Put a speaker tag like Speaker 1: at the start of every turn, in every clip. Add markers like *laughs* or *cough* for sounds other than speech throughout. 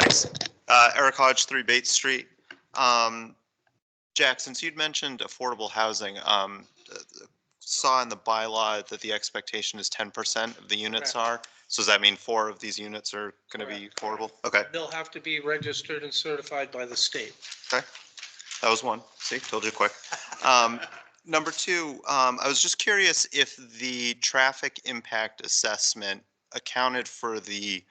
Speaker 1: Yes.
Speaker 2: Uh, Eric Hodge, three Bates Street. Um, Jack, since you'd mentioned affordable housing, um, uh, saw in the bylaw that the expectation is ten percent of the units are. So does that mean four of these units are gonna be affordable? Okay,
Speaker 3: They'll have to be registered and certified by the state.
Speaker 2: that was one. See, told you quick. Um, number two, um, I was just curious if the traffic impact assessment accounted for the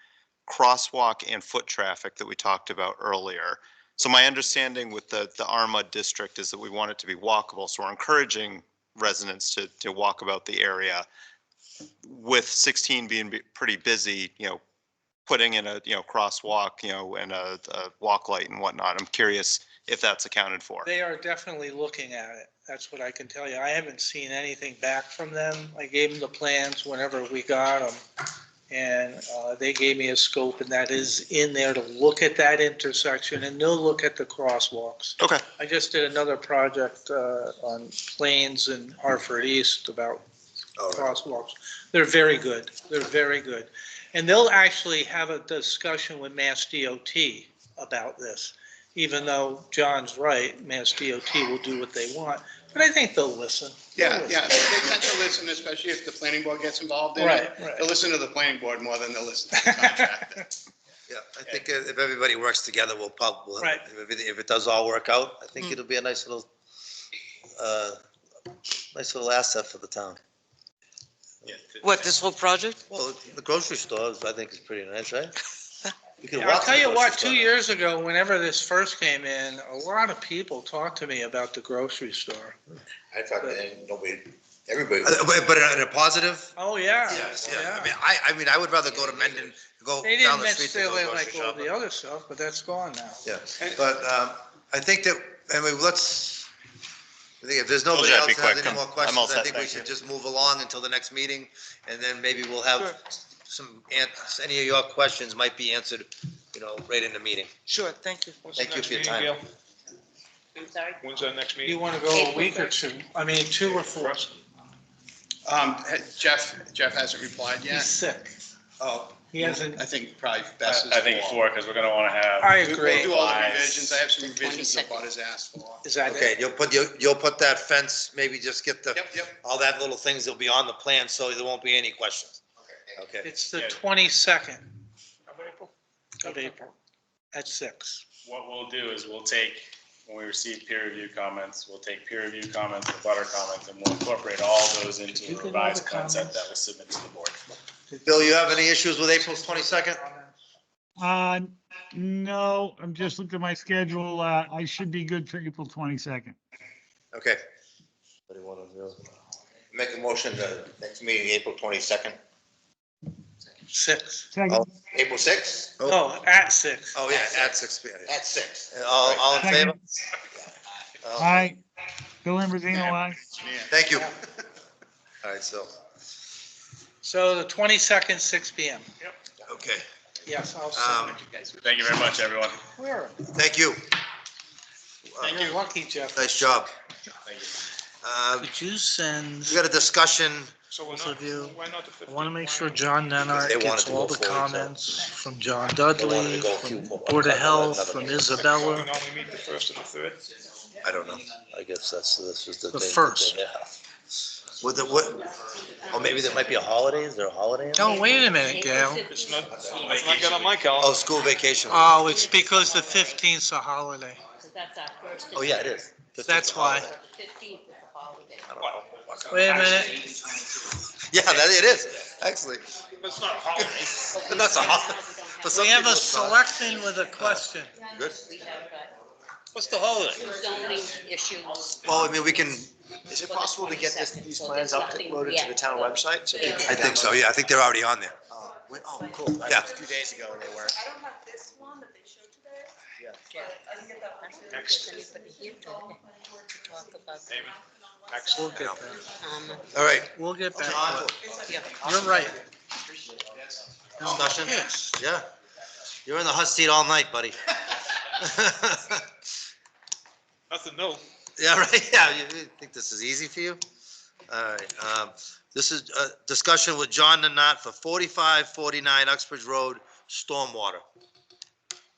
Speaker 2: crosswalk and foot traffic that we talked about earlier. So my understanding with the, the Arma district is that we want it to be walkable, so we're encouraging residents to, to walk about the area. With sixteen being be- pretty busy, you know, putting in a, you know, crosswalk, you know, and a, a walk light and whatnot. I'm curious if that's accounted for.
Speaker 3: They are definitely looking at it. That's what I can tell you. I haven't seen anything back from them. I gave them the plans whenever we got them. And uh, they gave me a scope and that is in there to look at that intersection and they'll look at the crosswalks.
Speaker 2: Okay.
Speaker 3: I just did another project uh, on Plains and Hartford East about crosswalks. They're very good. They're very good. And they'll actually have a discussion with Mass DOT about this. Even though John's right, Mass DOT will do what they want, but I think they'll listen. They'll
Speaker 4: Yeah,
Speaker 3: listen.
Speaker 4: yeah, they tend to listen, especially if the planning board gets involved in it.
Speaker 3: Right, right.
Speaker 4: They'll listen to the planning board more than they'll listen to
Speaker 3: *laughs*
Speaker 4: the contractor.
Speaker 5: Yeah, I think uh, if if everybody works together, we'll probably,
Speaker 3: Right.
Speaker 5: if everything, if it does all work out, I think
Speaker 3: Mm.
Speaker 5: it'll be a nice little, uh, nice little asset for the town.
Speaker 1: What, this whole project?
Speaker 5: Well, the grocery stores, I think is pretty nice, right? You can
Speaker 3: Yeah,
Speaker 5: walk
Speaker 3: I'll
Speaker 5: to
Speaker 3: tell
Speaker 5: the
Speaker 3: you
Speaker 5: grocery
Speaker 3: what,
Speaker 5: store
Speaker 3: two
Speaker 5: now.
Speaker 3: years ago, whenever this first came in, a lot of people talked to me about the grocery store.
Speaker 6: I thought that nobody, everybody.
Speaker 5: Uh, But, but in a positive?
Speaker 3: Oh, yeah.
Speaker 5: I mean, I, I mean, I would rather go to Mendon, go
Speaker 3: They
Speaker 5: down
Speaker 3: didn't
Speaker 5: the street to go
Speaker 3: necessarily like
Speaker 5: grocery
Speaker 3: all the
Speaker 5: shopping.
Speaker 3: other stuff, but that's gone now.
Speaker 5: Yeah, but, um, I think that, I mean, let's, I think if there's nobody
Speaker 2: Told you I'd
Speaker 5: else
Speaker 2: be
Speaker 5: has
Speaker 2: quick.
Speaker 5: any more
Speaker 2: I'm- I'm all
Speaker 5: questions, I
Speaker 2: set,
Speaker 5: think we
Speaker 2: thank
Speaker 5: should
Speaker 2: you.
Speaker 5: just move along until the next meeting, and then maybe we'll have some, an- any of your questions might be answered, you know, right in the meeting.
Speaker 1: Sure, thank you.
Speaker 5: Thank you for your time.
Speaker 7: I'm sorry.
Speaker 8: When's our next
Speaker 3: You
Speaker 8: meeting?
Speaker 3: want to go a week or two, I mean, two or four.
Speaker 4: Um, Jeff, Jeff hasn't replied
Speaker 3: He's
Speaker 4: yet.
Speaker 3: sick.
Speaker 4: Oh,
Speaker 3: He hasn't,
Speaker 4: I think probably
Speaker 8: I
Speaker 4: best is.
Speaker 8: I think four, because we're gonna want to have.
Speaker 3: I
Speaker 4: We'll
Speaker 3: agree.
Speaker 4: do all the
Speaker 8: Five.
Speaker 4: revisions. I have some
Speaker 7: The
Speaker 4: revisions that Bud
Speaker 7: 22nd.
Speaker 4: has asked for.
Speaker 3: Is that
Speaker 5: Okay,
Speaker 3: it?
Speaker 5: you'll put, you'll, you'll put that fence, maybe just get the,
Speaker 4: Yep, yep.
Speaker 5: all that little things will be on the plan, so there won't be any questions. Okay,
Speaker 3: It's the
Speaker 8: Yeah.
Speaker 3: twenty-second of April at six.
Speaker 8: What we'll do is we'll take, when we receive peer review comments, we'll take peer review comments, the butter comments, and we'll incorporate all those
Speaker 3: Could you
Speaker 8: into
Speaker 3: give
Speaker 8: a
Speaker 3: me
Speaker 8: revised
Speaker 3: the
Speaker 8: concept
Speaker 3: comments?
Speaker 8: that was submitted to the board.
Speaker 5: Bill, you have any issues with April twenty-second?
Speaker 9: Uh, no, I'm just looking at my schedule. Uh, I should be good for April 22nd.
Speaker 5: Okay. uh, Make a motion, the next meeting, April twenty-second,
Speaker 3: Six.
Speaker 9: Second,
Speaker 6: April sixth,
Speaker 3: Oh, at six.
Speaker 5: oh, yeah, at six P M. Uh,
Speaker 6: at six.
Speaker 5: All, all in favor?
Speaker 9: second.
Speaker 5: All-
Speaker 9: Aye. Bill Ambrosino, aye.
Speaker 5: Thank you. All right, so,
Speaker 3: So the twenty-second, six P M.
Speaker 5: okay,
Speaker 3: Yes, I'll send
Speaker 5: um,
Speaker 3: it.
Speaker 8: Thank you very much, everyone.
Speaker 3: Where?
Speaker 5: thank you. Uh,
Speaker 3: You're lucky, Jeff.
Speaker 5: Nice job.
Speaker 8: Thank you.
Speaker 5: Uh,
Speaker 3: Could you send,
Speaker 5: we got a discussion,
Speaker 8: So we're
Speaker 3: Also
Speaker 8: not,
Speaker 3: do-
Speaker 8: why not the
Speaker 3: I
Speaker 8: 15th?
Speaker 3: want to make sure
Speaker 8: Why not?
Speaker 3: John
Speaker 5: Because
Speaker 3: Nenart
Speaker 5: they wanted
Speaker 3: gets
Speaker 5: to
Speaker 3: all
Speaker 5: go
Speaker 3: the
Speaker 5: forward, so-
Speaker 3: comments from John
Speaker 5: They wanted
Speaker 3: Dudley,
Speaker 5: to go
Speaker 3: from
Speaker 5: few more-
Speaker 3: Board of Health, from
Speaker 8: Why
Speaker 3: Isabella.
Speaker 8: not we meet the first and the third?
Speaker 5: I don't know, I guess that's, this is the.
Speaker 3: The
Speaker 5: thing that they
Speaker 3: first.
Speaker 5: have. What, the- what, oh, maybe there might be a holiday, is there a holiday? in there?
Speaker 3: Oh, wait a minute, Gail.
Speaker 8: It's not, it's not got on my calendar.
Speaker 5: Oh, school vacation, oh,
Speaker 3: Oh, it's because the fifteenth's a holiday.
Speaker 7: Because that's our first.
Speaker 5: Oh, yeah, it is.
Speaker 3: That's why.
Speaker 7: Fifteenth is a holiday.
Speaker 5: I don't know.
Speaker 3: Wait a minute.
Speaker 5: Yeah, that, it is, actually,
Speaker 8: It's not a holiday.
Speaker 5: But that's a holiday. For some
Speaker 3: We have a
Speaker 5: people, it's not.
Speaker 3: selection with a question.
Speaker 5: Good.
Speaker 7: We have uh,
Speaker 5: What's the holiday?
Speaker 7: zoning issues.
Speaker 5: Well, I mean, we can,
Speaker 6: Is it possible to get this, these plans uploaded to the town website? so people can
Speaker 5: I think so, yeah, I think they're already on there.
Speaker 6: Oh, wait, oh, cool. I
Speaker 5: Yeah.
Speaker 6: looked Two days ago and they were.
Speaker 10: I don't have this one that they showed today.
Speaker 6: Yeah.
Speaker 10: But I can get that one. too.
Speaker 3: We'll get that.
Speaker 7: um,
Speaker 5: All right.
Speaker 3: We'll get
Speaker 5: John,
Speaker 3: that. You're right.
Speaker 5: Discussion?
Speaker 3: Yes.
Speaker 5: Yeah. You're in the hot seat all night, buddy.
Speaker 8: *laughs* Nothing new.
Speaker 5: Yeah, right, *laughs* yeah, you you think this is easy for you? All right, um, this is a discussion with John Nanat for forty-five forty-nine Uxbridge Road, stormwater.